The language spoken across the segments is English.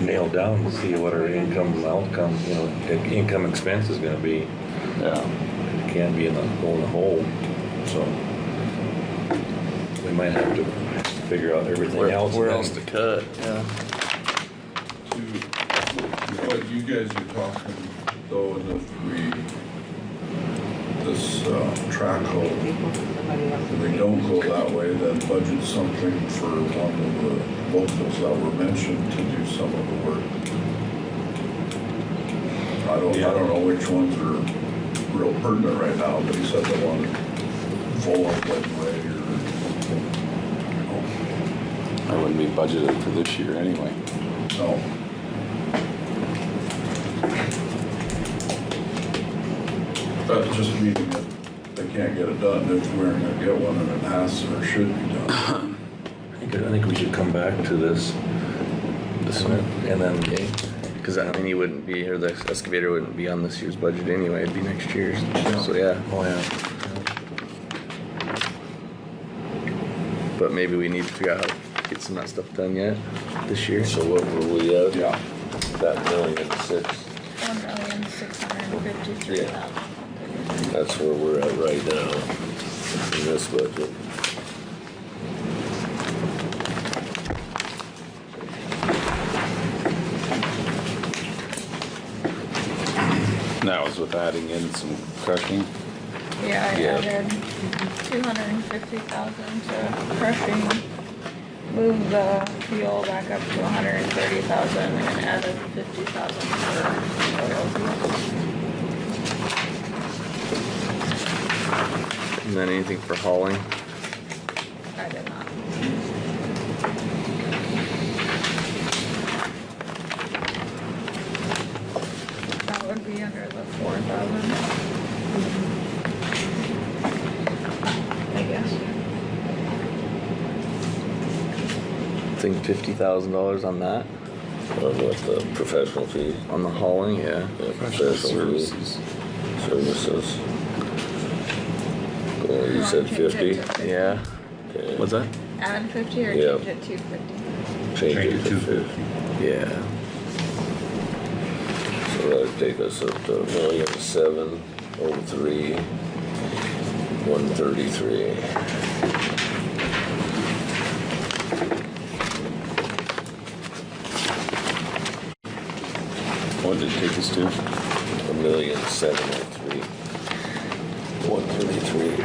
nailed down to see what our income and outcome, you know, the income expense is gonna be. Yeah, It Can't be in the, go in the hole, so. We might have to figure out everything where else. where and else to then- cut, yeah. To what you guys are talking, though, is if we, this uh, track hole, if we don't go that way, then budget something for one of the locals that were mentioned to do some of the work. I don't, I don't know which ones are real pertinent right now, but he said the one full of way or, That wouldn't be budgeted for this year anyway. no. That just means that they can't get it done if we're gonna get one and it has or should be done. I think- I think we should come back to this. This and one? then- And Okay, then, because I mean, you wouldn't be, or the excavator wouldn't be on this year's budget anyway, it'd be next year's, Yeah. so yeah. oh yeah. But maybe we need to figure out how to get some of that stuff done yet this year. So what were we at? Yeah. That million and six, One million, six hundred and fifty-three thousand. that's where we're at right now in this budget. That was with adding in some crushing? Yeah, I Yeah. added two hundred and fifty thousand to crushing. Moved the fuel back up to hundred and thirty thousand and added fifty thousand for oil. And then anything for hauling, I did not. That would be under the four thousand. I guess. I think fifty thousand dollars on that, On what the professional fee, on the hauling, yeah. yeah, professional fee, services. Well, you wanna said change it fifty? to- Yeah, Okay. what's that? Add fifty or Yeah. change it to fifty? Change it to fifty. Yeah, So that'd take us up to a million seven oh three, one thirty-three. What did it take us to? A million seven oh three, one thirty-three.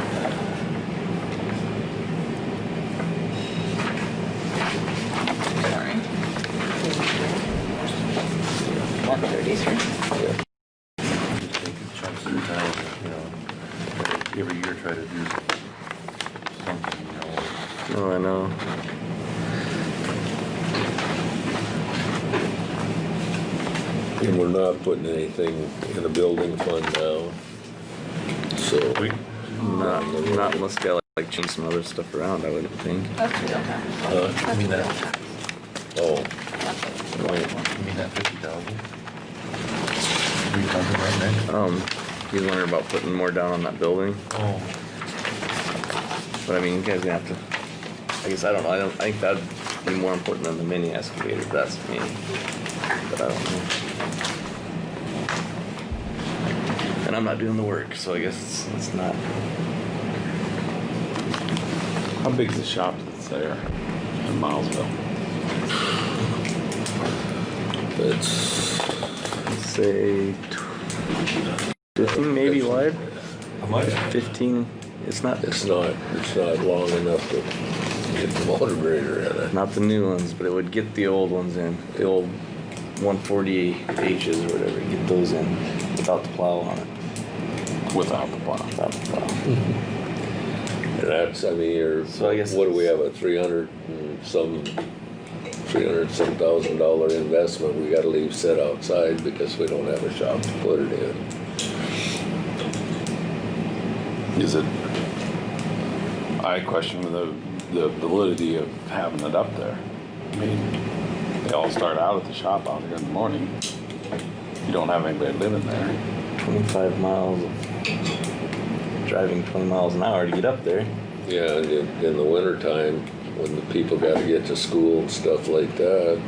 Sorry. One thirty-three. Yeah. Take chunks of time, you know, every year try to do something, you know. oh, I know. And we're not putting anything in the building fund now, so. Not, not unless they like change some other stuff around, I wouldn't think. That's fuel tax. Uh, Huh? That's mean fuel that- tax. Oh, That's it. wait. You mean that fifty thousand? We talking about that? Um, he's wondering about putting more down on that building. Oh. But I mean, you guys gonna have to. I guess I don't know. I don't. I think that'd be more important than the mini excavator. if That's me. But I don't know. And I'm not doing the work, so I guess it's, it's not. How big's the shop that's there in Milesville? It's. Say tw- fifteen, maybe wide. How much? Fifteen. It's not. It's not, it's not long enough to get the motor grader in it. Not the new ones, but it would get the old ones in. The old 140Hs or whatever. Get those in without the plow on it. Without the plow. Without the plow. And that's, I mean, you're, So I guess what do we it's- have, a three hundred and some, three hundred and some thousand dollar investment we gotta leave set outside because we don't have a shop to put it in. Is it, I question the, the validity of having it up there. I mean, they all start out at the shop out there in the morning. You don't have anybody living there. 25 miles of driving 20 miles an hour to get up there. Yeah, and in, in the wintertime, when the people gotta get to school and stuff like that,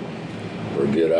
or get